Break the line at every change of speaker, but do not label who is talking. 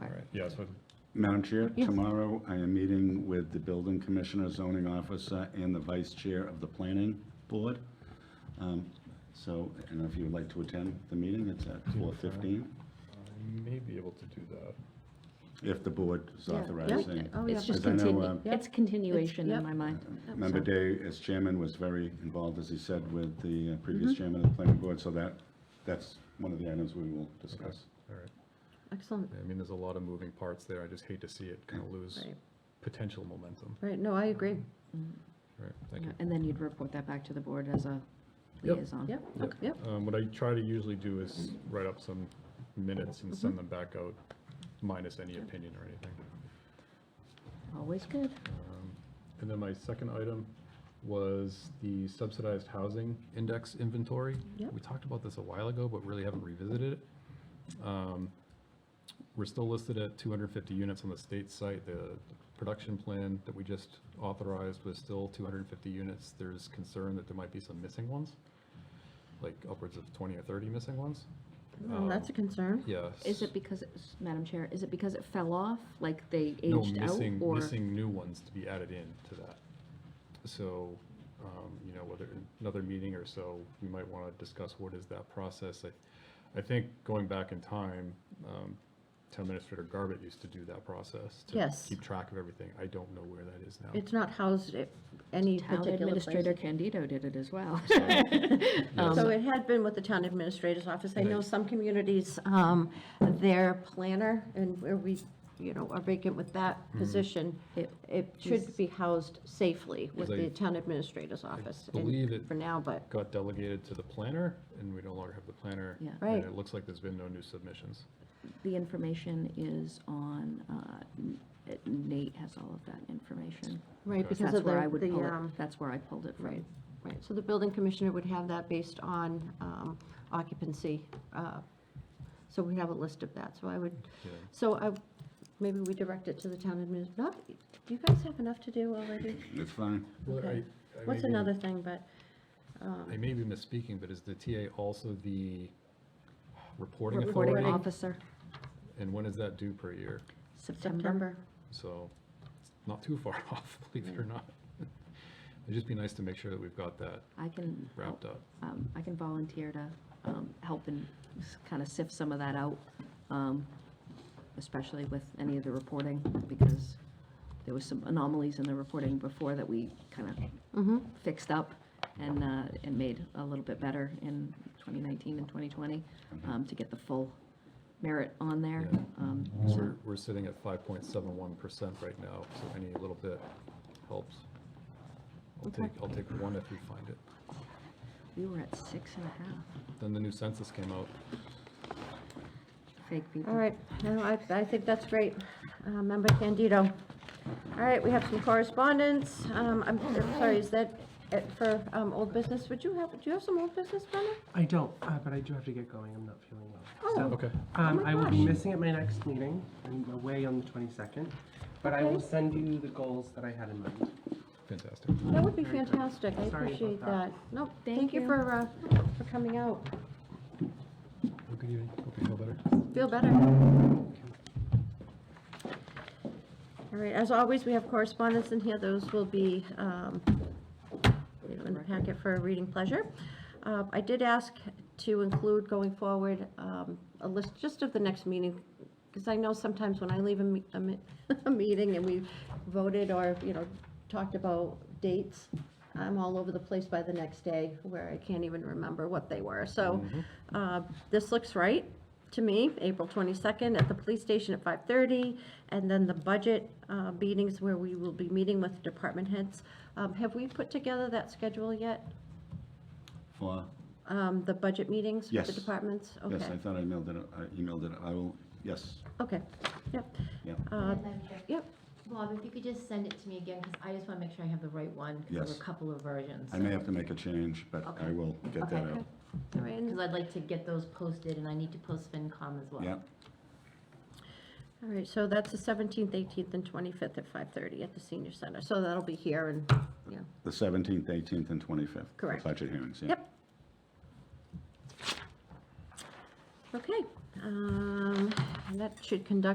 All right, yeah, so,
Madam Chair,
Yes.
tomorrow I am meeting with the building commissioner, zoning officer, and the vice chair of the planning board. Um, So, I don't know if you would like to attend the meeting, it's at 4:15,
I may be able to do that.
if the board is
Yeah, yeah.
authorizing.
Oh, yeah.
It's just
Because I know,
continu,
um,
uh,
it's continuation in
yep.
my mind.
Oh,
Member Day, as chairman, was very involved, as he said, with the uh,
Mm-hmm.
previous chairman of the planning board, so that, that's one of the items we will discuss.
All right.
Excellent.
I mean, there's a lot of moving parts there. I just hate to see it kind of lose
Right,
potential momentum.
right. No, I agree.
All right, thank
Yeah,
you.
And then you'd report that back to the board as a
Yep.
liaison.
Yep.
Yep.
Yep.
Um, What I try to usually do is write up some minutes and send them back out, minus any opinion or anything.
Always good.
Um, And then my second item was the subsidized housing index inventory.
Yep.
We talked about this a while ago, but really haven't revisited it. Um, We're still listed at 250 units on the state site. The production plan that we just authorized was still 250 units. There's concern that there might be some missing ones, like upwards of 20 or 30 missing ones.
Well, that's a
Um,
concern.
Yes.
Oh, Is it because, it's- Madam Chair, is it because it fell off, like they
No,
aged out?
missing-
or
Missing new ones to be added in to that. So, um, you know, whether, another meeting or so, we might want to discuss what is that process. I, I think going back in time, um, Town Administrator Garbett used to do that process. to
Yes.
Keep track of everything. I don't know where that is now.
It's not housed at any
Town
particular
Administrator
place.
Candido did it as well. Um,
Yes.
So it had been with the town administrator's office. I know some communities, um, their planner, and where we, you know, are vacant with that
Mm-hmm.
position,
It-
it should be housed safely with
Because I-
the town administrator's office. and
believe it-
For now, but,
Got delegated to the planner, and we no longer have the planner.
Yeah.
And
Right.
it looks like there's been no new submissions.
The information is on, uh, N- Nate has all of that information.
right, because
That's
of
where I
the,
would
the,
pull
um,
it, that's where I pulled it from.
Right, right, so the building commissioner would have that based on um, occupancy. uh, So we have a list of that, so I would,
Yeah.
so I, maybe we direct it to the town administrator. Not, do you guys have enough to do already?
It's fine.
Well, I-
Okay.
I
What's
may be-
another thing, but,
I may be misspeaking, but is the TA also the reporting authority?
Reporting officer,
And when is that due per year?
September.
September?
So it's not too far off, believe it or not. It'd just be nice to make sure that we've got that
I can,
wrapped up.
um, I can volunteer to um, help and kind of sift some of that out, um, especially with any of the reporting, because there was some anomalies in the reporting before that we kind of
Mm-hmm,
fixed up and, uh, and made a little bit better in 2019 and 2020 um, to get the full merit on there.
Yeah.
Um, so-
We're, we're sitting at five point seven one percent right now, so any little bit helps. I'll
Okay.
take, I'll take one if we find it.
We were at six and a half,
Then the new census came out.
fake people.
all right, no, I, I think that's great. Uh, Member Candido. All right, we have some correspondence. Um, I'm I'm sorry, is that it for um, old business? Would you have, do you have some old business, Brenda?
I don't, uh, but I do have to get going. I'm not feeling well.
Oh.
So,
Okay.
um,
my
I will be
gosh.
missing at my next meeting. I'm away on the 22nd, but I will
Okay.
send you the goals that I had in mind.
Fantastic.
That would be
Very good.
fantastic, I
Sorry about
appreciate that.
that.
No,
Thank
thank you
you.
for, uh, for coming out.
Well, Good evening. Hope you feel better.
Feel better. All right, as always, we have correspondence in here, those will be, um, you know, in the packet for reading pleasure. Uh, I did ask to include going forward um, a list just of the next meeting, because I know sometimes when I leave a me- a, mi- a meeting and we voted or, you know, talked about dates, I'm all over the place by the next day where I can't even remember what they were. So uh, this looks right to me, April 22nd at the police station at 5:30, and then the budget uh, meetings where we will be meeting with department heads. Um, Have we put together that schedule yet?
For,
Um, The budget meetings with the
Yes.
departments?
yes, I
Okay.
thought I mailed it, I emailed it, I will, yes,
Okay, yep.
yeah.
Uh,
Madam Chair.
Yep,
Bob, if you could just send it to me again, because I just want to make sure I have the right one, because there were
Yes.
a couple of versions.
I may have to make a change, but I
Okay.
will get that
Okay.
out.
all right, and-
Because I'd like to get those posted, and I need to post FinCom as well.
Yeah,
all right, so that's the 17th, 18th, and 25th at 5:30 at the senior center. So that'll be here and, yeah.
the 17th, 18th, and 25th. for
Correct.
Budget hearings, yeah.
Yep. Okay, um, and that should conduct